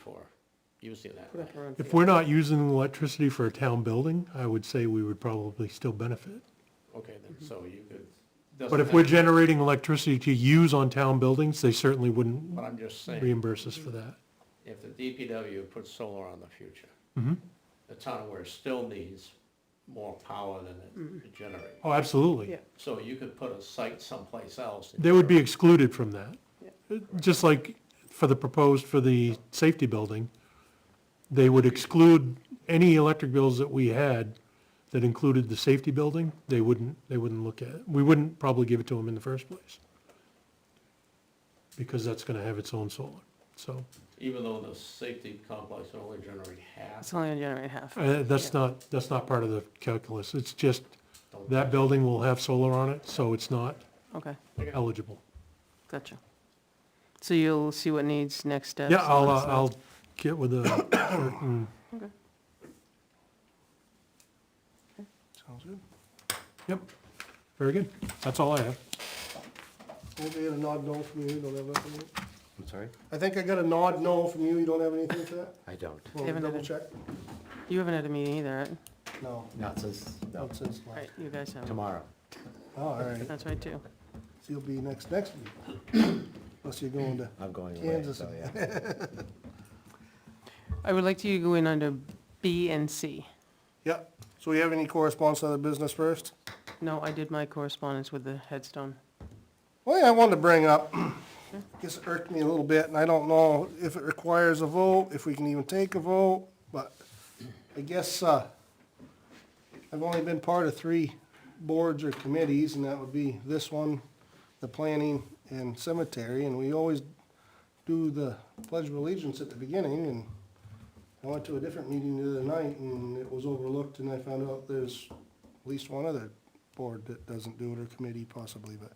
for using that. put up our own If field. we're not using electricity for a town building, I would say we would probably still benefit. Okay, then, so you could. But if doesn't we're matter. generating electricity to use on town buildings, they certainly wouldn't But I'm just saying, reimburse us for that. if the DPW puts solar on the future, Mhm. the town where it still needs more power than it generates. Oh, absolutely. Yeah. So you could put a site someplace else. They would be excluded from that. Yeah. Just like for the proposed, for the safety building, they would exclude any electric bills that we had that included the safety building, they wouldn't, they wouldn't look at it. We wouldn't probably give it to them in the first place. Because that's gonna have its own solar, so, Even though the safety complex would only generate half. It's only gonna generate half. uh, that's Yeah. not, that's not part of the calculus, it's just, that building will have solar on it, so it's not Okay, eligible. gotcha. So you'll see what needs next steps. Yeah, I'll, and uh, stuff. I'll get with the, certain- Sounds good. very good, that's all I have. Won't be a nod no from you, you don't have nothing. else? I'm sorry? I think I got a nod no from you, you don't have anything for that? I don't. Well, Haven't had double it. check? You haven't had a meeting either, right? No, Not since not since last. Right, you guys haven't. tomorrow. Oh, All right, so That's right, too. you'll be next, next week. Unless you're going to, I'm going away, Kansas. so yeah. I would like you to go in under B and C. yep. So we have any correspondence on the business first? No, I did my correspondence with the headstone. Well, yeah, I wanted to bring up, this irked me a little bit, and I don't know if it requires a vote, if we can even take a vote, but I guess, uh, I've only been part of three boards or committees, and that would be this one, the planning and cemetery, and we always do the pledge of allegiance at the beginning, and I went to a different meeting the other night, and it was overlooked, and I found out there's at least one other board that doesn't do it, or committee possibly, but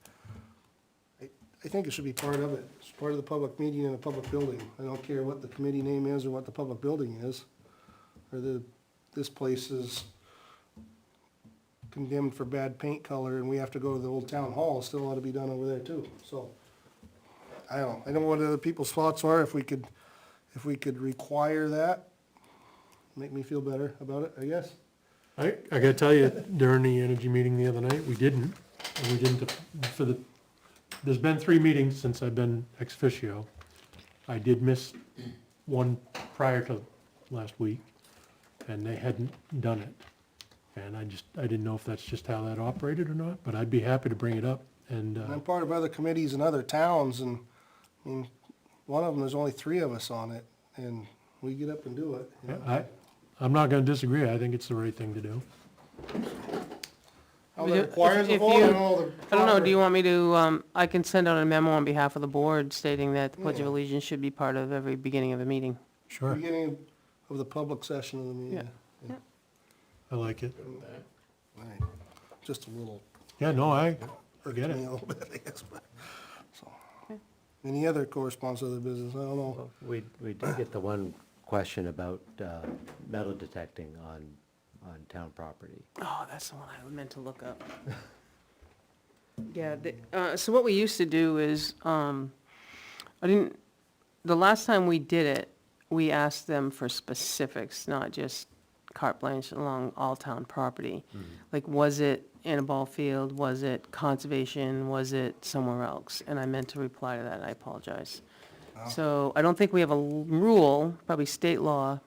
I think it should be part of it. It's part of the public meeting in a public building. I don't care what the committee name is or what the public building is. Or the, this place is condemned for bad paint color and we have to go to the old town hall, It still ought to be done over there too, so. I don't, I don't know what other people's thoughts are, if we could, if we could require that, make me feel better about it, I guess. I, I gotta tell you, during the energy meeting the other night, we didn't, and we didn't, for the, there's been three meetings since I've been ex officio. I did miss one prior to last week, and they hadn't done it. And I just, I didn't know if that's just how that operated or not, but I'd be happy to bring it up, and, And uh, I'm part of other committees in other towns, and, I mean, one of them, there's only three of us on it, and we get up and do it. you know? I, I'm not gonna disagree, I think it's the right thing to do. How We that do- requires a if- if vote, you- I don't know. the I don't know, proper- do you want me to, um, I can send out a memo on behalf of the board stating that the Pledge of Yeah. Allegiance should be part of every beginning of a meeting. Sure. Beginning of the public session of the meeting. I like it. Good with that. Right. Just a little, Yeah, no, I, irked get it. me a little bit, I guess, but, so. Any other correspondence of the business, I don't know. We, we did get the one question about uh, metal detecting on, on town property. Oh, that's the one I meant to look up. Yeah, the- uh, so what we used to do is, um, I didn't, the last time we did it, we asked them for specifics, not just carte blanche along all town property. Like, was it in a ball field, was it conservation, was it somewhere else? And I meant to reply to that, I apologize. So I don't think we have a l- rule, probably state law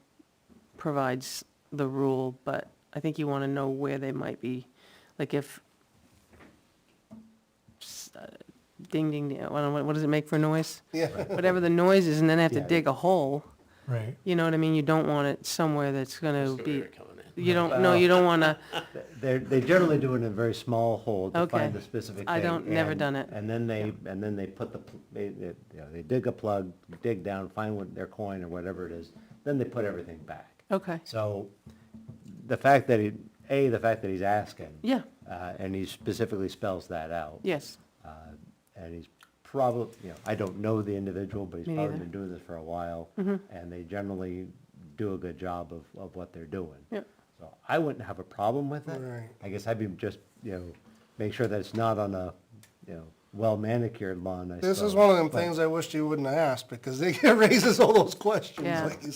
provides the rule, but I think you want to know where they might be, like if, s- uh, ding, ding, ding, I don't know, what- what does it make for noise? Yeah, Whatever the noise is, and then they have to Yeah. dig a hole, right. you know what I mean? You don't want it somewhere That's that's going the to way be, they're coming in. you don't, no, you don't want to, They're, they generally do it in a very small hole to Okay. find the specific thing. I don't- never and- done it. And then they, and then they put the, pl- they, they, you know, they dig a plug, dig down, find what their coin or whatever it is, then they put everything back. okay, So the fact that he, A, the fact that he's asking. yeah, Uh, and he specifically spells that out. yes, Uh, and he's probably, you know, I don't know the individual, but he's Me probably neither. Mm-hmm. been doing this for a while. And they generally do a good job of, of what they're doing. Yep. So I wouldn't have a problem with it. Right. I guess I'd be just, you know, make sure that it's not on a, you know, well manicured lawn, I suppose. uh, This is one of them but- things I wished you wouldn't have asked, because they raises all those questions, Yeah. like you